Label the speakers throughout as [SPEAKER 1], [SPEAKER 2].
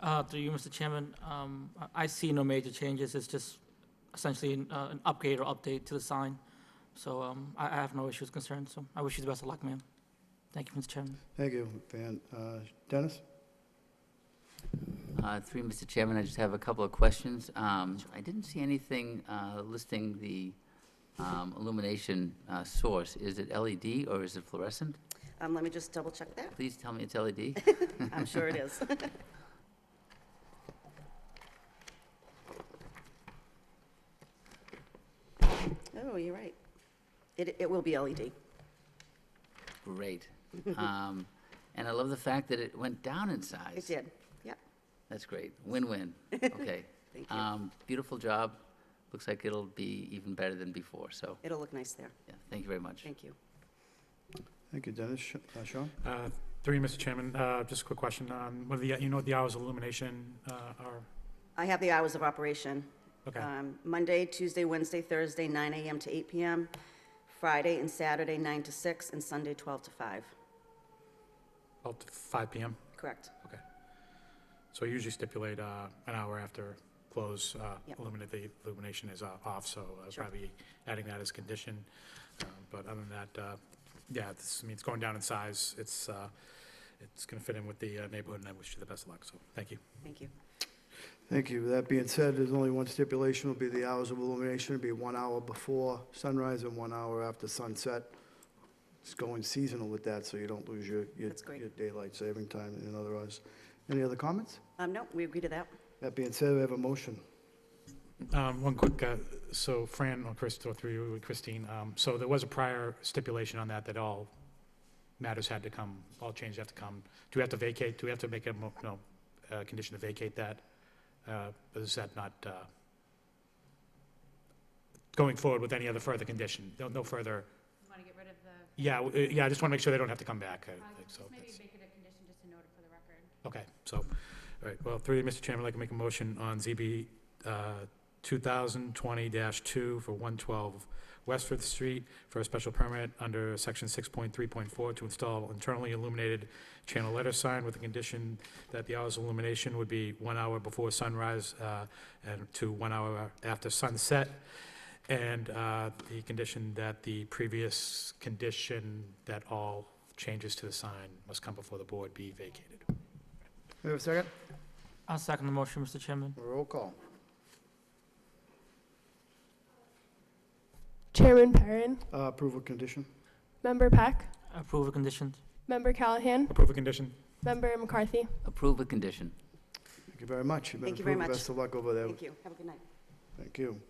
[SPEAKER 1] Uh, Through you, Mr. Chairman, um, I- I see no major changes. It's just essentially an uh, an upgrade or update to the sign. So um, I I have no issues concerned, so I wish you the best of luck, ma'am. Thank you, Mr. Chairman.
[SPEAKER 2] Thank you, Van. Uh, Dennis?
[SPEAKER 3] Uh, Through you, Mr. Chairman, I just have a couple of questions. Um, I didn't see anything uh, listing the um, illumination uh, source. Is it LED or is it fluorescent?
[SPEAKER 4] Um, let me just double check that.
[SPEAKER 3] Please tell me it's E LED.
[SPEAKER 4] I'm sure it is. Oh, you're right. It, it will be LED.
[SPEAKER 3] Great. Um, And I love the fact that it went down in size.
[SPEAKER 4] It did. Yep.
[SPEAKER 3] That's great. Win-win. Okay.
[SPEAKER 4] Thank you.
[SPEAKER 3] Um, Beautiful job. Looks like it'll be even better than before, so,
[SPEAKER 4] It'll look nice there.
[SPEAKER 3] yeah, thank you very much.
[SPEAKER 4] Thank you.
[SPEAKER 2] Thank you, Dennis. Sh- uh, Sean?
[SPEAKER 5] Uh, Through you, Mr. Chairman, uh, just a quick question, um, whether, the- you know what the hours of illumination uh, are?
[SPEAKER 4] I have the hours of operation.
[SPEAKER 5] Okay.
[SPEAKER 4] Um, Monday, Tuesday, Wednesday, Thursday, 9 AM to 8 PM, Friday and Saturday, 9 to 6, and Sunday, 12 to 5.
[SPEAKER 5] About to five PM?
[SPEAKER 4] Correct.
[SPEAKER 5] Okay. So we usually stipulate uh, an hour after close, uh,
[SPEAKER 4] Yep.
[SPEAKER 5] illuminate, the illumination is uh, off, so uh,
[SPEAKER 4] Sure.
[SPEAKER 5] probably adding that as a condition. Uh, But other than that, uh, yeah, this, I mean, it's going down in size, it's, uh, it's going to fit in with the uh, neighborhood, and I wish you the best of luck, so, thank you.
[SPEAKER 4] Thank you.
[SPEAKER 2] Thank you. That being said, there's only one stipulation, will be the hours of illumination, it'll be one hour before sunrise and one hour after sunset. It's going seasonal with that, so you don't lose your, your
[SPEAKER 4] That's great.
[SPEAKER 2] your daylight saving time and other hours. Any other comments?
[SPEAKER 4] Um, no, we agree to that.
[SPEAKER 2] That being said, we have a motion.
[SPEAKER 5] Um, One quick, uh, so Fran or Chris, or through you, Christine, um, so there was a prior stipulation on that, that all matters had to come, all changes have to come. Do we have to vacate, do we have to make a, mo- no, uh, condition to vacate that? Uh, Is that not, uh, going forward with any other further condition? No- No further,
[SPEAKER 6] Want to get rid of the,
[SPEAKER 5] yeah, w- uh, yeah, I just want to make sure they don't have to come back. I
[SPEAKER 6] uh,
[SPEAKER 5] think so.
[SPEAKER 6] just maybe
[SPEAKER 5] That's-
[SPEAKER 6] make it a condition, just to note it for the record.
[SPEAKER 5] Okay, so, all right, well, through you, Mr. Chairman, I'd like to make a motion on ZB uh, 2020-2 for 112 Westford Street for a special permit under Section 6.3.4 to install internally illuminated channel letter sign with the condition that the hours of illumination would be one hour before sunrise uh, and to one hour after sunset, and uh, the condition that the previous condition that all changes to the sign must come before the board be vacated.
[SPEAKER 2] We have a second?
[SPEAKER 1] I'll second the motion, Mr. Chairman.
[SPEAKER 2] Roll call.
[SPEAKER 7] Chairman Perrin,
[SPEAKER 2] Uh, Approval condition?
[SPEAKER 7] Member Peck,
[SPEAKER 1] Approve the conditions.
[SPEAKER 7] Member Callahan,
[SPEAKER 5] Approve the condition?
[SPEAKER 7] Member McCarthy.
[SPEAKER 3] Approve with condition.
[SPEAKER 2] Thank you very much. You've been
[SPEAKER 4] Thank you very
[SPEAKER 2] approved.
[SPEAKER 4] much.
[SPEAKER 2] Best of luck over there.
[SPEAKER 4] Thank you. Have a good night.
[SPEAKER 2] Thank you.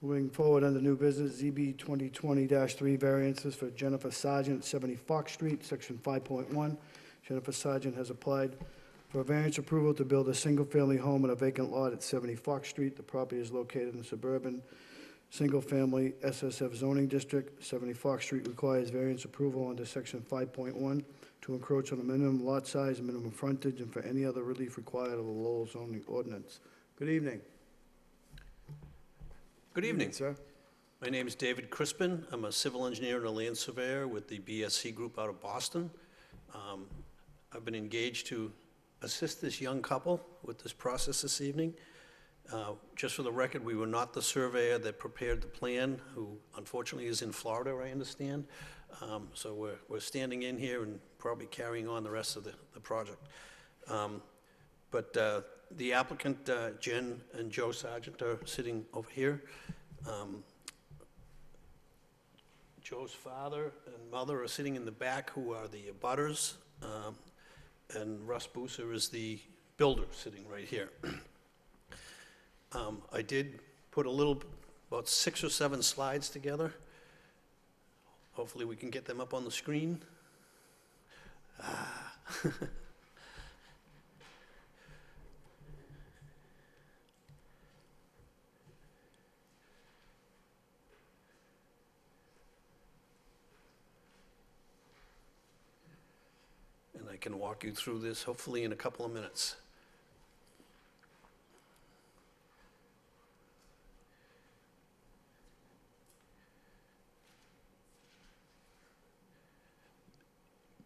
[SPEAKER 2] Moving forward under new business, ZB 2020-3 variances for Jennifer Sargent, 70 Fox Street, Section 5.1. Jennifer Sargent has applied for a variance approval to build a single-family home on a vacant lot at 70 Fox Street. The property is located in the suburban, single-family SSF zoning district. 70 Fox Street requires variance approval under Section 5.1 to encroach on the minimum lot size, minimum frontage, and for any other relief required of the Lowell zoning ordinance. Good evening.
[SPEAKER 8] Good evening.
[SPEAKER 2] Sir.
[SPEAKER 8] My name is David Crispin. I'm a civil engineer and a land surveyor with the BSC Group out of Boston. Um, I've been engaged to assist this young couple with this process this evening. Uh, Just for the record, we were not the surveyor that prepared the plan, who unfortunately is in Florida, I understand. Um, So we're, we're standing in here and probably carrying on the rest of the, the project. Um, But uh, the applicant, uh, Jen and Joe Sargent, are sitting over here. Um, Joe's father and mother are sitting in the back, who are the abutters, um, and Russ Booser is the builder, sitting right here. Um, I did put a little, about six or seven slides together. Hopefully, we can get them up on the screen. Ah. And I can walk you through this hopefully in a couple of minutes.